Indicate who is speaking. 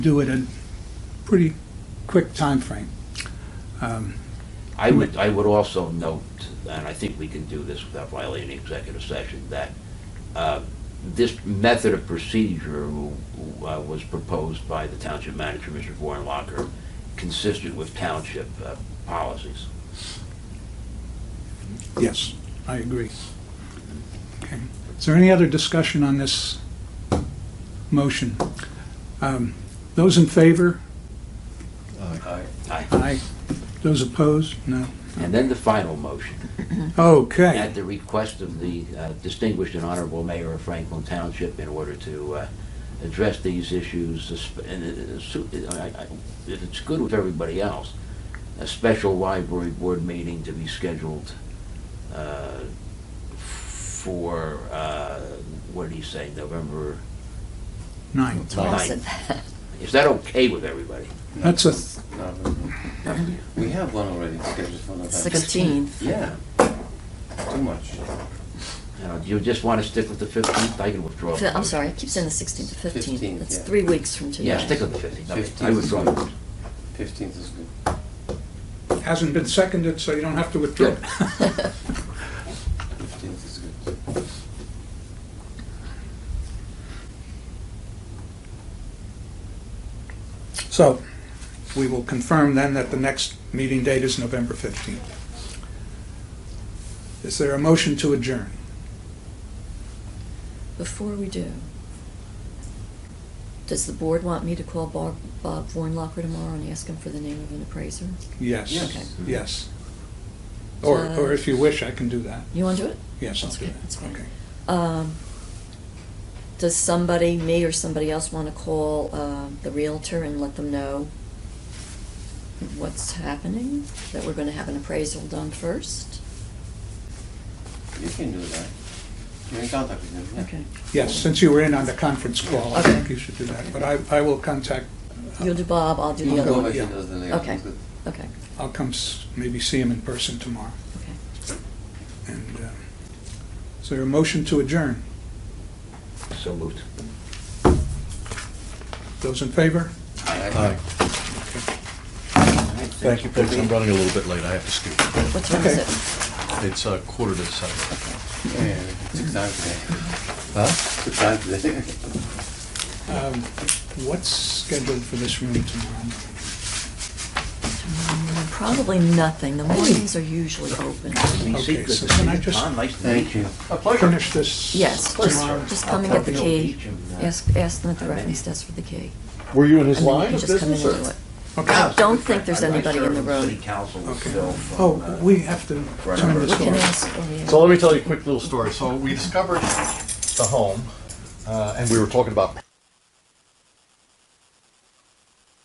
Speaker 1: do it in pretty quick timeframe. Um,
Speaker 2: I would, I would also note, and I think we can do this without violating executive session, that uh, this method of procedure uh, was proposed by the township manager, Mr. Warnlocker, consistent with township uh, policies.
Speaker 1: Yes, I agree. Okay. Is there any other discussion on this motion? Um, Those in favor?
Speaker 2: Aye.
Speaker 1: Aye. Those opposed? No.
Speaker 2: And then the final motion,
Speaker 1: Okay.
Speaker 2: at the request of the uh, distinguished and honorable mayor of Franklin Township in order to uh, address these issues, esp- and it- it- su- I- I- if it's good with everybody else, a special library board meeting to be scheduled uh, for, uh, what did he say, November
Speaker 1: Nine.
Speaker 2: ninth.
Speaker 3: Awesome.
Speaker 2: Is that okay with everybody?
Speaker 1: That's a, th-
Speaker 4: No, no, no. We have one already scheduled for November.
Speaker 3: 16.
Speaker 4: Yeah. Too much.
Speaker 2: You know, Do you just want to stick with the 15th? I can withdraw.
Speaker 3: Fi-
Speaker 2: the
Speaker 3: I'm sorry, I
Speaker 2: motion.
Speaker 3: keep saying the 16th to 15th.
Speaker 4: 15th,
Speaker 3: That's
Speaker 4: yeah.
Speaker 3: three weeks from today.
Speaker 2: Yeah, stick with the 15th. Okay, I
Speaker 4: 15th.
Speaker 2: withdraw. the motion.
Speaker 4: Fifteenth is good.
Speaker 1: hasn't been seconded, so you don't have to withdraw.
Speaker 2: Good.
Speaker 4: Fifteenth is good.
Speaker 1: So we will confirm then that the next meeting date is November 15th. Is there a motion to adjourn?
Speaker 3: Before we do, does the board want me to call Bob, Bob Vornlocker tomorrow and ask him for the name of an appraiser? Okay.
Speaker 1: Yes, yes. Or, or if you wish, I can do that.
Speaker 3: You want to do it?
Speaker 1: Yes, I'll
Speaker 3: That's
Speaker 1: do
Speaker 3: okay,
Speaker 1: that.
Speaker 3: that's fine.
Speaker 1: Okay.
Speaker 3: Um, does somebody, me or somebody else, want to call, uh, the Realtor and let them know what's happening? That we're gonna have an appraisal done first?
Speaker 4: You can do that. You're in contact with him, yeah.
Speaker 3: Okay.
Speaker 1: Yes, since you were in on the conference call, I
Speaker 3: Okay.
Speaker 1: think you should do that. But I, I will contact, uh,
Speaker 3: You'll do Bob, I'll do
Speaker 4: You
Speaker 3: the
Speaker 4: can
Speaker 3: other
Speaker 4: go
Speaker 3: one.
Speaker 4: back to
Speaker 1: yeah.
Speaker 4: those, then they
Speaker 3: Okay.
Speaker 4: good.
Speaker 3: Okay,
Speaker 1: I'll come s- maybe see him in person tomorrow.
Speaker 3: okay.
Speaker 1: And uh, is there a motion to adjourn?
Speaker 2: So moved.
Speaker 1: Those in favor?
Speaker 4: Aye.
Speaker 5: Hi. Thank you, folks. I'm running a little bit late. I have to scoot.
Speaker 3: What time is
Speaker 1: Okay.
Speaker 3: it?
Speaker 5: It's uh, quarter to seven.
Speaker 4: Yeah, yeah, Took time today.
Speaker 5: Huh?
Speaker 4: Took time today.
Speaker 1: Um, What's scheduled for this room tomorrow?
Speaker 3: Mm, Probably nothing. The mornings are usually open.
Speaker 1: Okay, so can I just
Speaker 2: Tom, nice to meet
Speaker 4: Thank
Speaker 2: you.
Speaker 4: you.
Speaker 1: finish this?
Speaker 3: Yes, just,
Speaker 1: tomorrow?
Speaker 3: just come and
Speaker 2: I'll
Speaker 3: get the
Speaker 2: come to
Speaker 3: key.
Speaker 2: each of them.
Speaker 3: Ask, ask them at the
Speaker 2: I mean-
Speaker 3: reference desk for the key.
Speaker 5: Were you in his
Speaker 3: And then you
Speaker 5: line
Speaker 3: can
Speaker 5: of
Speaker 3: just come in
Speaker 5: business?
Speaker 3: and do
Speaker 5: or-
Speaker 3: it.
Speaker 1: Okay,
Speaker 3: don't think there's
Speaker 2: I- I
Speaker 3: anybody in
Speaker 2: serve
Speaker 3: the
Speaker 2: on
Speaker 3: room.
Speaker 2: City council
Speaker 1: okay.
Speaker 2: still from,
Speaker 1: Oh,
Speaker 2: uh,
Speaker 1: we have to
Speaker 2: Right
Speaker 1: turn
Speaker 2: over.
Speaker 1: this
Speaker 3: We can
Speaker 1: off.
Speaker 3: ask, oh, yeah.
Speaker 5: So let me tell you a quick little story. So we discovered the home, uh, and we were talking about